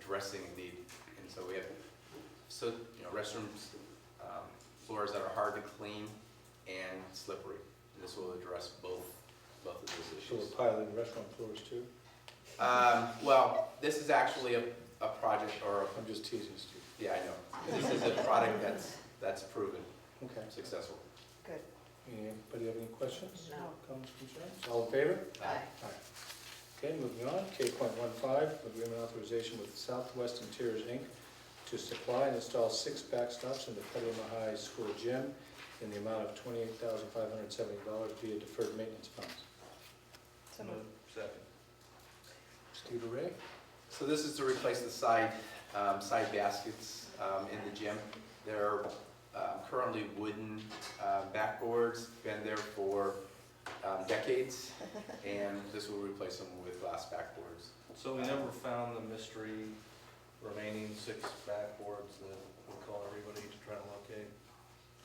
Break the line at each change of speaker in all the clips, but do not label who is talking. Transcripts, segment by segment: pressing need. And so we have, so, you know, restrooms, um, floors that are hard to clean and slippery. And this will address both, both of those
So
issues.
we're piling restaurant floors too?
Um, well, this is actually a, a project or, a-
I'm just teasing, Steve.
yeah, I know. This is a product that's, that's proven
Okay.
successful.
Good.
Anybody have any questions?
No.
Comments, concerns? All in favor?
Uh,
Aye. Okay, moving on, K point one five, agreement authorization with Southwest Interiors, Inc. to supply and install six backstops in the Petaluma High School gym in the amount of twenty-eight thousand five hundred seventy dollars via deferred maintenance funds.
So moved.
Second.
Steve or Ray?
So this is to replace the side, um, side baskets, um, in the gym. They're, um, currently wooden, uh, backboards, been there for, um, decades. And this will replace them with glass backboards.
So we never found the mystery remaining six backboards that we'll call everybody to try to locate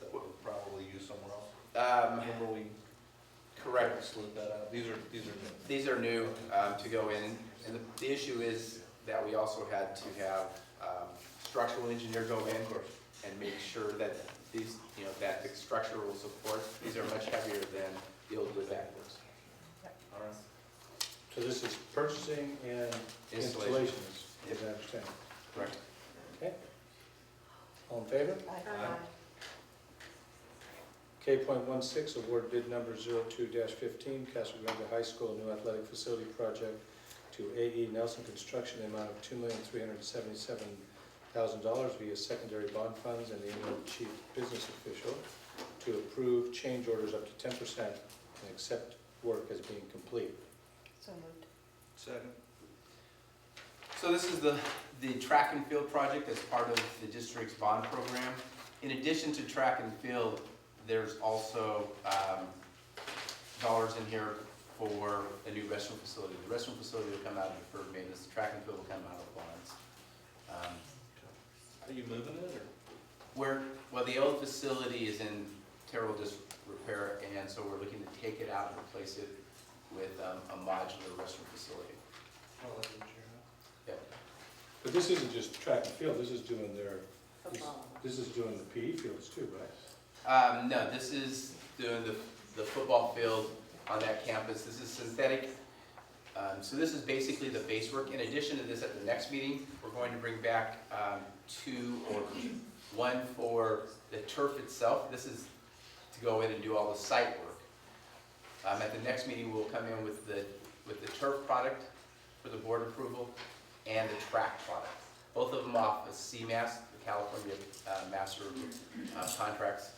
that we'll probably use somewhere else.
Um,
Remember we
correct,
slid that out? These are, these are new.
These are new um, to go in, and the- the issue is that we also had to have um, structural engineer go in and make sure that these, you know, that the structural support, these are much heavier than the old wood backboards.
All right.
So this is purchasing and
Installation.
installations, as I understand.
Correct.
Okay? All in favor?
Aye.
K point one six, award bid number 2 fifteen, Castle Grande High School New Athletic Facility Project to AE Nelson Construction, the amount of two million three hundred seventy-seven thousand dollars via secondary bond funds and the annual chief business official to approve change orders up to ten percent and accept work as being complete.
So moved.
Second.
So this is the, the track and field project as part of the district's bond program. In addition to track and field, there's also um, dollars in here for a new restroom facility. The restroom facility will come out of deferred maintenance, the track and field will come out of bonds. Um,
Are you moving it or?
Where, well, the old facility is in terrible disrepair, and so we're looking to take it out and replace it with um, a modular restroom facility. Yep.
But this isn't just track and field, this is doing their, this- this is doing the PE fields too, right?
Um, no, this is doing the, the football field on that campus. This is synthetic. Um, so this is basically the base work. In addition to this, at the next meeting, we're going to bring back, um, two or one for the turf itself. This is to go in and do all the site work. Um, at the next meeting, we'll come in with the, with the turf product for the board approval and the track product. Both of them off of CMAS, the California, uh, Master uh, contracts.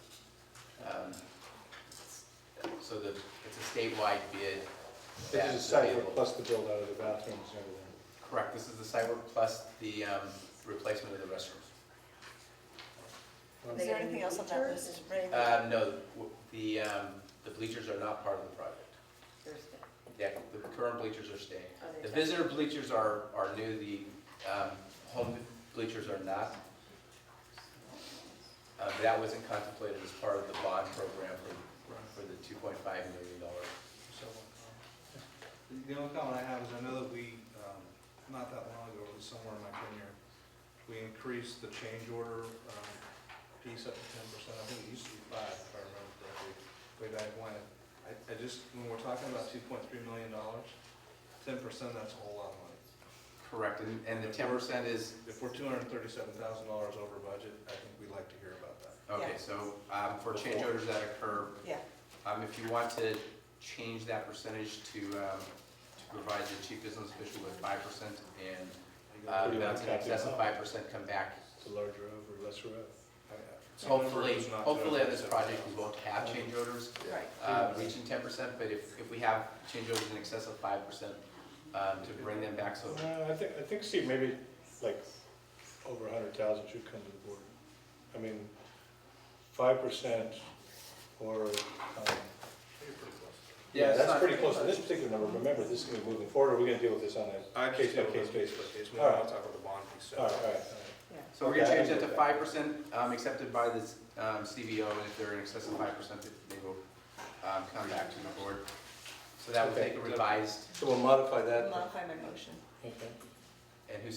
Um, So the, it's a statewide bid.
This
that's
is a site
available.
work plus the build out of the bathrooms and everything.
Correct, this is the site work plus the um, replacement of the restrooms.
Is there anything else on that list, Ray?
Uh, No, w- the, um, the bleachers are not part of the project.
Thursday.
Yeah, the current bleachers are staying. The visitor bleachers are, are new, the um, home bleachers are not. Uh, That wasn't contemplated as part of the bond program for, for the $2.5 million dollar
So, um, The only comment I have is I know that we, um, not that long ago, it was somewhere in my tenure, we increased the change order um, piece up to ten percent. I think it used to be five, if I remember correctly, way back when. I, I just, when we're talking about two point three million dollars, ten percent, that's a whole lot of money.
Correct, and, and the ten percent is,
If we're two hundred and thirty-seven thousand dollars over budget, I think we'd like to hear about that.
okay,
Yeah.
so, um, for change orders that occur,
Yeah,
um, if you want to change that percentage to, um, to provide the chief business official with five percent and,
Do
uh,
you
that's in
want to cap it
excess of
out?
five percent, come back.
The larger of or lesser of?
I- I-
Hopefully,
It's not
hopefully on this
237,000.
project, we won't have change orders,
right.
uh, reaching ten percent, but if, if we have change orders in excess of five percent, um, to bring them back, so,
No, Uh, I think, I think, Steve, maybe like over a hundred thousand should come to the board. I mean, five percent or, um,
Yeah,
yeah,
it's
that's
not-
pretty close to this particular number. Remember, this is gonna be moving forward, or we're gonna deal with this on a,
I
Case by
understand,
case
case, case,
basis.
case, we
All
don't
right.
talk about the bond piece.
all right, all right.
so we're gonna
Okay, I
change
can
that
do
to
that.
five percent, um, accepted by this, um, CBO, and if they're in excess of five percent, they will, um, come back to the board. So that will
Okay.
take a revised,
So we'll modify that.
Modify my motion.
Okay.
and who's